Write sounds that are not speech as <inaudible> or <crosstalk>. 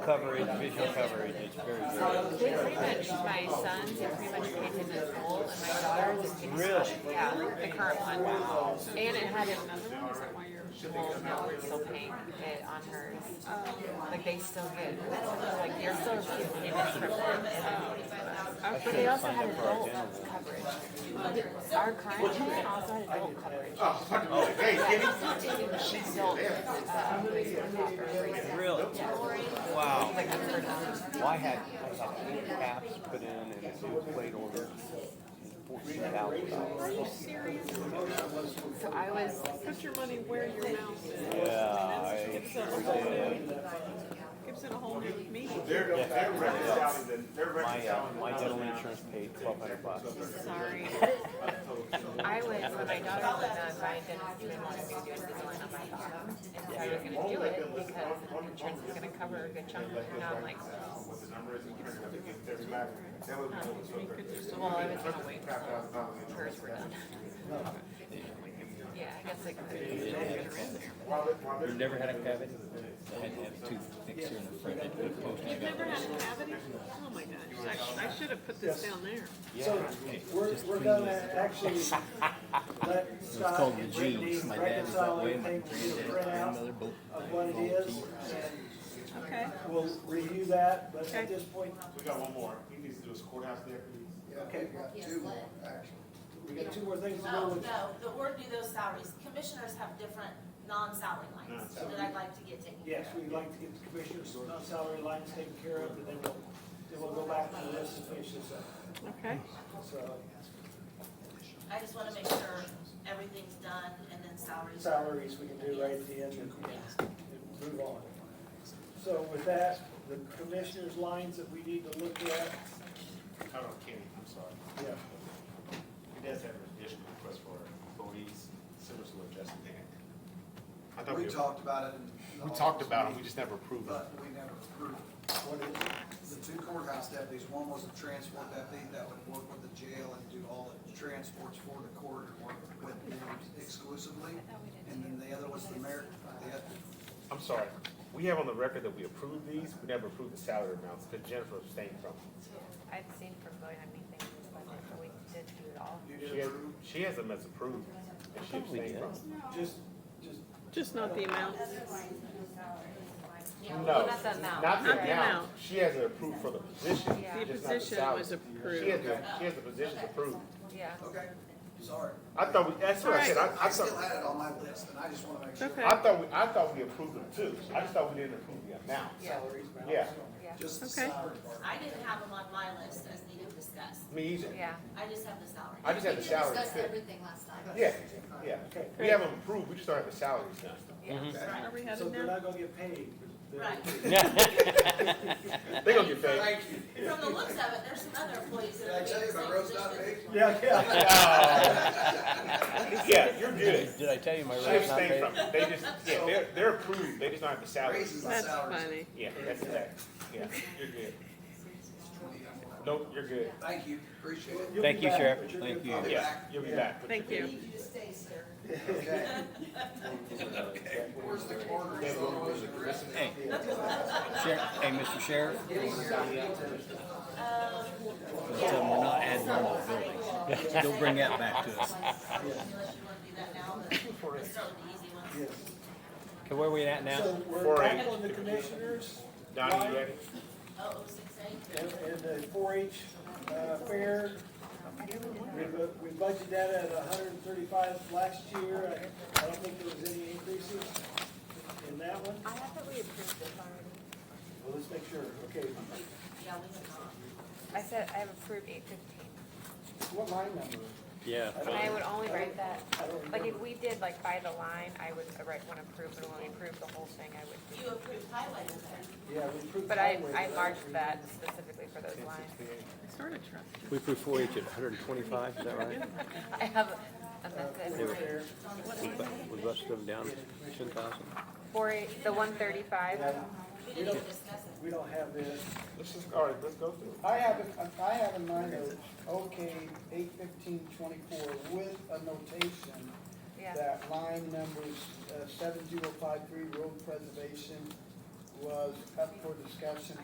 coverage, visual coverage, it's very good. Pretty much my sons have pretty much paid him in full, and my daughters have paid Really? Yeah, the current one. And it had another one, was it one year? Well, no, we're still paying it on hers. Like, they still get, like, they're still receiving payments from them. But they also had adult coverage. Our current plan also had adult coverage. Really? Wow. Well, I had, I had eight caps put in and a new plate order. Fourteen thousand dollars. So I was, Put your money where your mouth is. Yeah, I Gives it sure did. a whole, gives it a whole new meaning. They're, they're reconciling, the- <laughs> they're My, uh, reconciling. the my dental numbers now. insurance paid twelve hundred bucks. sorry. I was, when my daughter was on buying dental, she didn't want to be doing Invisalign on my bottom. And so I was gonna do it because insurance was gonna cover a good chunk of it. And I'm like, well, uh, What the number is, we're gonna have to get their back. That would be cool. So they're- I was gonna wait until $5,000 in hers were done. Yeah, I guess it could While it- while You they're- never had a cavity? I had to have a tooth fixed here in the front. I put a post in You've never had a cavity? Oh my gosh, I, I should have put this down there. So we're, we're gonna actually let Scott called the and Brittany genes. My dad was that reconcile way. My everything to the printout grandmother both of what it is. and Okay. We'll review that, but at this point, We got one more. He needs to do his courthouse there. okay, we got two more things to go No, with. no, the board do those salaries. Commissioners have different non-salary lines that I'd like to get taken care Yes, we'd like to get the commissioners' non-salary lines taken care of, and then we'll, then we'll go back to this and finish this up. Okay. So of. I just wanna make sure everything's done and then salaries. are- salaries we can do right at the end and and move on. So with that, the commissioners' lines that we need to look at, I don't, Kenny, I'm sorry. yeah. He does have an additional request for employees, similar to what Justin did. I thought We we, talked about it. in the we talked about it, we office just never approved it. But we never approved it. What is it? The two courthouse deputies, one was a transport deputy that would work with the jail and do all the transports for the court and work with them exclusively. And then the other was the mayor, the other, I'm sorry. We have on the record that we approved these, we never approved the salary amounts, because Jennifer abstained from them. I've seen from going on meetings, but we did do it all. You She did has, approve, she has them as approved, and she abstained from them. just, just, Just not the amount. No, Not the amount. not the Not the amount. amount. She has it approved for the position, Yeah. The just not the position salary. was She has, approved. the- she has the positions approved. Yeah. okay, sorry. I thought we, that's what I said, I, I I still thought, had it on my list and I just want to make sure. Okay. I thought, we- I thought we approved them too. I just thought we didn't approve the amount. Yeah. salaries, balance. Yeah, Just the Okay. salary part. I didn't have them on my list as needed discussed. me either. Yeah. I just have the salary. I just had the salaries discussed too. everything last time. Yeah, yeah. Okay. We have them approved, we just don't have the salaries done. Are we So headed they're now? not gonna get paid. but they're- Right. They gonna get paid. From the looks of it, there's some other employees Did that I are. tell you my road's not big? Yeah, yeah. Yeah, you're good. Did I tell you my She rate's not abstained paid? from it. They just, yeah, they're, they're approved, they just don't have the salaries. Raises the That's salaries. funny. Yeah, that's that. Yeah, you're good. Nope, you're good. Thank you, appreciate it. You'll Thank be you, back, Sheriff. but you're Thank good. you. I'll be Yeah, back. you'll be back. Thank you. you to stay, sir. Okay. Where's the corner? Hey, Sheriff, hey, Mr. Sheriff. Tell them we're not adding on to the buildings. Don't bring that back to us. Unless you wanna do that now, <laughs> but let's start with the easy ones. Okay, where are we at now? So we're Four back H. on the commissioners. Donnie, you ready? Oh, oh, six, eight? And, and the four H, uh, fair. We, bu- we budgeted that at hundred and thirty-five last year. I, I don't think there was any increases in that one. I have that we approved this already. Well, let's make sure. Okay, Yeah, we have not. I said I have approved eight fifteen. what line number? Yeah. And I would only write that, I don't remember. like if we did like by the line, I would write one approved, but when we approved the whole thing, I would. You approved highway with that. Yeah, we approved. But I, highway, I but marked that specifically for those lines. I sort of trust you. We approved four H at hundred and twenty-five, is that right? I have amended Fair. We bu- We busted them down ten thousand. four eight, the one thirty-five. We didn't even discuss it. We don't have this. Let's just, all right, let's go through. it. I have it, I have in mind of OK eight fifteen twenty-four with a notation Yeah. uh, that line numbers seven zero five three road preservation was up for discussion